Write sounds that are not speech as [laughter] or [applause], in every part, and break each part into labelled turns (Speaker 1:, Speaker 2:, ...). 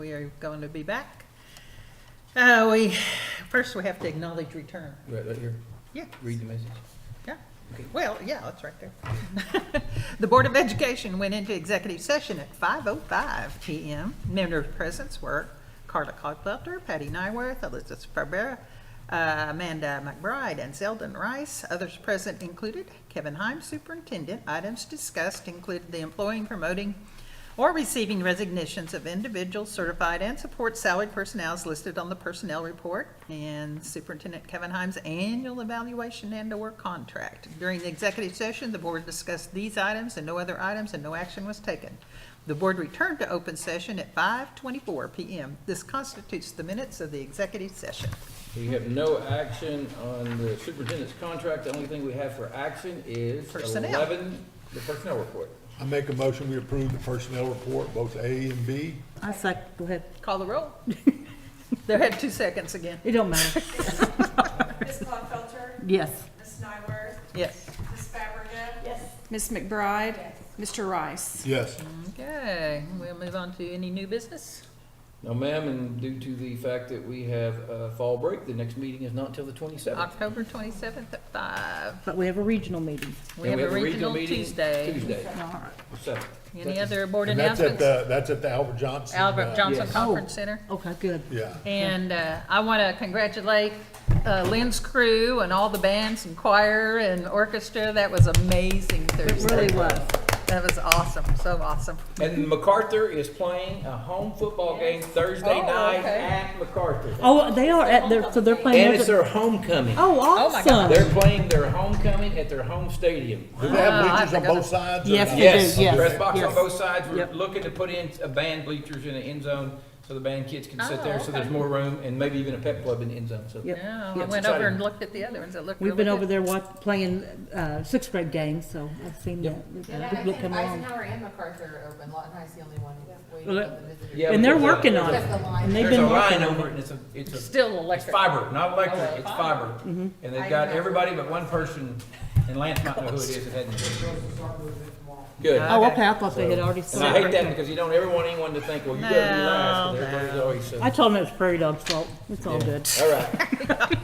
Speaker 1: to be back. Uh, we, first we have to acknowledge return.
Speaker 2: Right, right here,
Speaker 1: Yeah,
Speaker 2: read the message.
Speaker 1: yeah. Well, yeah, that's right there. [laughs] The Board of Education went into executive session at 5:05 PM. Members present were Carla Cogfelter, Patty Nyworth, Elizabeth Barbera, uh, Amanda McBride, and Zeldon Rice. Others present included Kevin Heim, Superintendent. Items discussed included the employing, promoting, or receiving resignations of individuals certified and support salaried personnel as listed on the personnel report and Superintendent Kevin Himes' annual evaluation and/or contract. During the executive session, the board discussed these items and no other items, and no action was taken. The board returned to open session at 5:24 PM. This constitutes the minutes of the executive session.
Speaker 2: We have no action on the superintendent's contract. The only thing we have for action is
Speaker 1: Personnel.
Speaker 2: eleven, the personnel report.
Speaker 3: I make a motion, we approve the personnel report, both A and B.
Speaker 4: I second, go ahead.
Speaker 1: Call the [laughs] roll. There had two seconds again.
Speaker 4: It don't matter.
Speaker 5: Ms. Claufelter?
Speaker 4: Yes.
Speaker 5: Ms. Nyworth?
Speaker 1: Yes.
Speaker 5: Ms. Fabregat? Yes. Ms. McBride? Mr. Rice?
Speaker 3: Yes.
Speaker 1: Okay, we'll move on to any new business.
Speaker 2: No, ma'am, and due to the fact that we have uh fall break, the next meeting is not till the twenty-seventh.
Speaker 1: October 27th at 5.
Speaker 4: But we have a regional meeting.
Speaker 1: We have a regional
Speaker 2: meeting
Speaker 1: Tuesday.
Speaker 2: Tuesday,
Speaker 4: All right.
Speaker 2: the seventh.
Speaker 1: Any other board
Speaker 3: And that's at
Speaker 1: announcements?
Speaker 3: the, that's at the Albert Johnson.
Speaker 1: Albert
Speaker 3: uh,
Speaker 1: Johnson
Speaker 2: yes.
Speaker 1: Conference Center.
Speaker 4: Okay, good.
Speaker 3: Yeah.
Speaker 1: And uh, I want to congratulate uh, Lynn's crew and all the bands and choir and orchestra. That was amazing
Speaker 4: It
Speaker 1: Thursday.
Speaker 4: really was.
Speaker 1: That was awesome, so awesome.
Speaker 2: And MacArthur is playing a home football game Thursday
Speaker 1: Oh,
Speaker 2: night
Speaker 1: okay.
Speaker 2: at MacArthur.
Speaker 4: Oh, they are at their, so they're playing.
Speaker 2: And it's their homecoming.
Speaker 4: Oh,
Speaker 1: my
Speaker 2: They're
Speaker 4: awesome.
Speaker 2: playing their homecoming at their home stadium.
Speaker 3: Do they
Speaker 1: Wow, Oh, I
Speaker 3: have bleachers on
Speaker 1: forgot.
Speaker 3: both sides? or
Speaker 4: Yes,
Speaker 3: not?
Speaker 4: they do,
Speaker 2: Yes,
Speaker 4: yes,
Speaker 2: press box
Speaker 4: yes.
Speaker 2: on both sides, we're
Speaker 4: Yep.
Speaker 2: looking to put in a band bleachers in the end zone, so the band kids can sit
Speaker 1: Oh,
Speaker 2: there, so there's
Speaker 1: okay.
Speaker 2: more room, and maybe even a pep club in the end zone, so.
Speaker 4: Yep.
Speaker 1: Yeah, I
Speaker 2: Yes,
Speaker 1: went over
Speaker 2: exciting.
Speaker 1: and looked at the other ones. It looked really
Speaker 4: We've
Speaker 1: good.
Speaker 4: been over there wat, playing, uh, sixth grade games, so I've seen that.
Speaker 6: Yeah, I
Speaker 4: People
Speaker 6: think
Speaker 4: come along.
Speaker 6: Eisenhower and MacArthur are open, Lawton High's the only one waiting
Speaker 4: Well,
Speaker 6: on the visitors.
Speaker 2: Yeah,
Speaker 4: And they're
Speaker 2: because, uh,
Speaker 4: working on it.
Speaker 6: Just the
Speaker 4: And
Speaker 6: line.
Speaker 4: they've
Speaker 2: There's a
Speaker 4: been working
Speaker 2: line
Speaker 4: on
Speaker 2: over it,
Speaker 4: it.
Speaker 2: and it's a, it's a,
Speaker 1: Still
Speaker 2: it's
Speaker 1: electric.
Speaker 2: fiber, not
Speaker 1: Oh,
Speaker 2: electric, it's
Speaker 1: fiber.
Speaker 2: fiber.
Speaker 4: Mm-hmm.
Speaker 2: And they've got everybody but one person, and Lance might know who it is that hadn't. Good.
Speaker 4: Oh, okay, I thought they had already
Speaker 2: And I hate
Speaker 4: started.
Speaker 2: that because you don't ever want anyone to think, well, you gotta be last,
Speaker 1: No,
Speaker 2: because everybody's always. so-
Speaker 4: I told them it was prairie dog's fault. It's all
Speaker 2: Yeah.
Speaker 4: good.
Speaker 2: All right.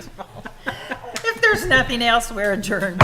Speaker 1: If there's nothing else, we're adjourned.